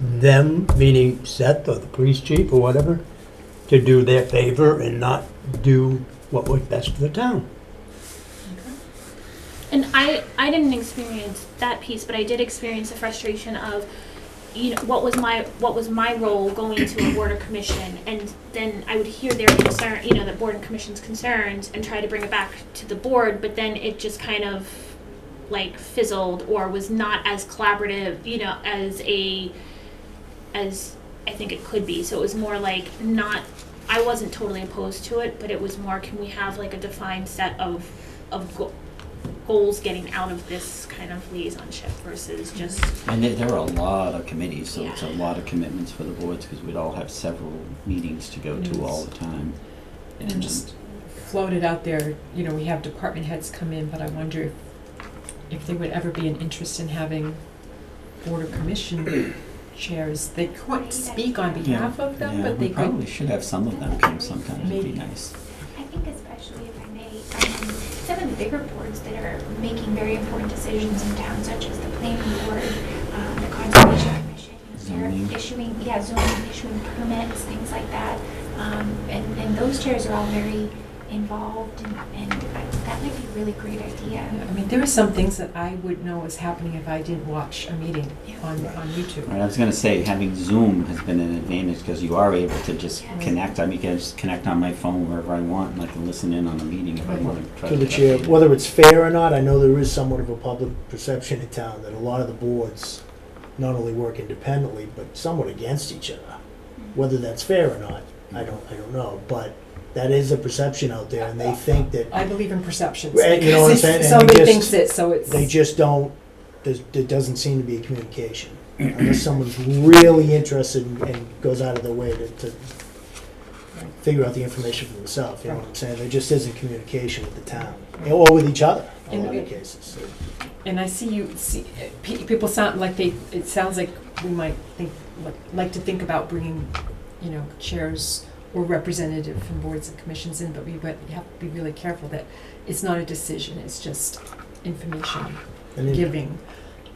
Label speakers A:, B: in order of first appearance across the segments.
A: them, meaning Seth or the police chief or whatever, to do their favor and not do what was best for the town.
B: And I, I didn't experience that piece, but I did experience the frustration of, you know, what was my, what was my role going to a board or commission? And then I would hear their concern, you know, the board and commission's concerns and try to bring it back to the board, but then it just kind of like fizzled or was not as collaborative, you know, as a, as I think it could be. So it was more like not, I wasn't totally opposed to it, but it was more, can we have like a defined set of, of go- goals getting out of this kind of liaisonship versus just
C: And there, there are a lot of committees, so it's a
B: Yeah.
C: lot of commitments for the boards, because we'd all have several meetings to go to all the time.
D: And just floated out there, you know, we have department heads come in, but I wonder if, if there would ever be an interest in having board or commission chairs. They couldn't speak on behalf of them,
C: Yeah,
D: but they
C: We
D: could,
C: probably should have some of them come sometimes, it'd be
D: Maybe.
C: nice.
E: I think especially if I may, um, some of the bigger boards that are making very important decisions in town, such as the planning board, um, the conservation commission,
C: Zoning.
E: they're issuing, yeah, zoning, issuing permits, things like that. Um, and, and those chairs are all very involved and, and I- that might be a really great idea.
D: I mean, there are some things that I would know is happening if I didn't watch a meeting
E: Yeah.
D: on, on YouTube.
C: All right, I was gonna say, having Zoom has been an advantage, because you are able to just
E: Yeah.
C: connect, I mean, I can just connect on my phone wherever I want, and I can listen in on a meeting if I
F: Right.
C: wanna try to.
F: to the
C: get
F: chair,
C: updated.
F: whether it's fair or not, I know there is somewhat of a public perception in town that a lot of the boards not only work independently, but somewhat against each other. Whether that's fair or not, I don't, I don't know, but that is a perception out there, and they think that,
D: I believe in perceptions.
F: Right, you know what I'm
D: because
F: saying? And we
D: Somebody
F: just-
D: thinks it, so it's.
F: they just don't, there, there doesn't seem to be a communication. Unless someone's really interested and- and goes out of their way to, to figure out the information for themselves, you know what I'm saying? There just isn't communication with the town, or with each other, in
D: And
F: other
D: we-
F: cases.
D: And I see you, see, pe- people sound like they, it sounds like we might think, like- like to think about bringing, you know, chairs or representative from boards and commissions in, but we but you have to be really careful that it's not a decision, it's just information
F: And then-
D: giving.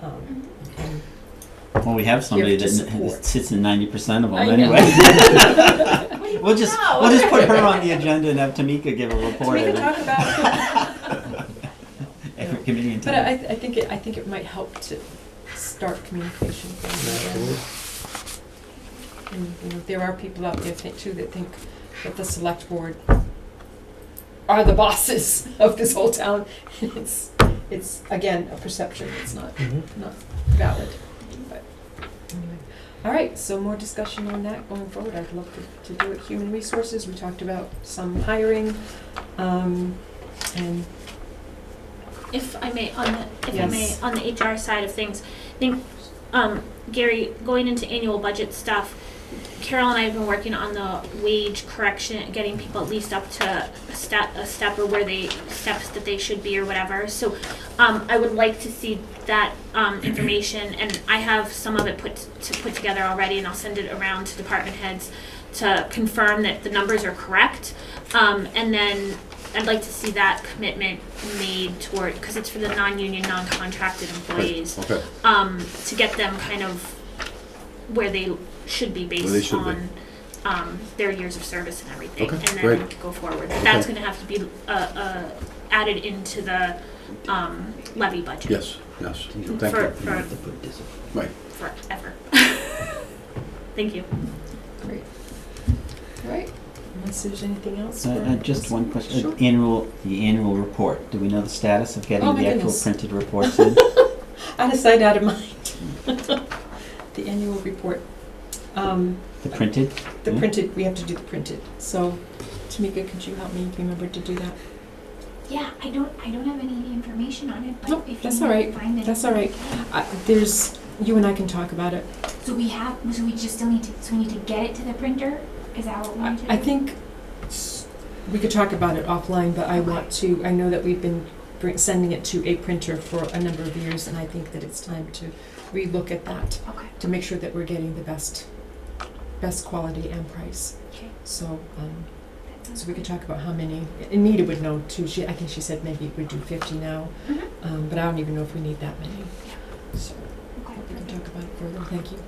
D: um, and-
C: Well, we have somebody
D: to
C: that n-
D: support.
C: sits in ninety percent of them
D: I know.
C: anyway. We'll just, we'll just put her on the agenda and have Tamika give a
D: So
C: report
D: we
C: at
D: can talk about,
C: every committee in
D: but
C: town.
D: I, I think, it I think it might help to start communication.
F: Absolutely.
D: And, you know, there are people out there think too that think that the select board are the bosses of this whole town. It's, it's, again, a perception, it's not,
F: Mhm.
D: not valid, but anyway. All right, so more discussion on that going forward, I'd love to, to do it, human resources, we talked about some hiring, um, and,
B: if I may, on the, if
D: Yes.
B: I may, on the HR side of things, I think, um, Gary, going into annual budget stuff, Carol and I have been working on the wage correction, getting people at least up to a step, a step or where they, steps that they should be or whatever. So, um, I would like to see that, um, information, and I have some of it put, to put together already, and I'll send it around to department heads to confirm that the numbers are correct. Um, and then I'd like to see that commitment made toward, because it's for the non-union, non-contracted employees,
G: Okay,
B: um, to get them kind of where they should be
G: Where they
B: based
G: should be.
B: on, um, their years of service and everything.
G: Okay,
B: And then
G: great.
B: go forward. But that's
G: Okay.
B: gonna have to be, uh, uh, added into the, um, levy budget.
G: yes, yes, thank
B: For,
G: you,
B: for,
C: To put this-
G: right.
B: forever. Thank you.
D: great. All right, unless there's anything else
C: Uh,
D: for
C: uh, just one question, Uh,
D: Sure.
C: annual, the annual report, do we know the status of
D: Oh
C: getting
D: my
C: the actual
D: goodness.
C: printed reports in?
D: Out of sight, out of mind. The annual report. Um,
C: The printed?
D: The
C: Hmm?
D: printed, we have to do the printed. So Tamika, could you help me remember to do that?
E: Yeah, I don't, I don't have any information on it,
D: Nope,
E: but if you
D: that's all right.
E: find it.
D: That's all right. Uh, There's, you and I can talk about it.
E: So we have, so we just still need to, so we need to get it to the printer? Is that what we
D: I
E: need to do?
D: I think s- we could talk about it offline, but I want to, I know that we've been br- sending it to a printer for a number of years, and I think that it's time to relook at that
E: Okay,
D: to make sure that we're getting the best, best quality and price.
E: okay.
D: So, um,
E: that sounds
D: So we could
E: good.
D: talk about how many, Anita would know too, she, I think she said maybe we do fifty now,
E: Mhm.
D: um, but I don't even know if we need that many. So,
E: Okay,
D: we
E: perfect.
D: can talk about it further, thank you.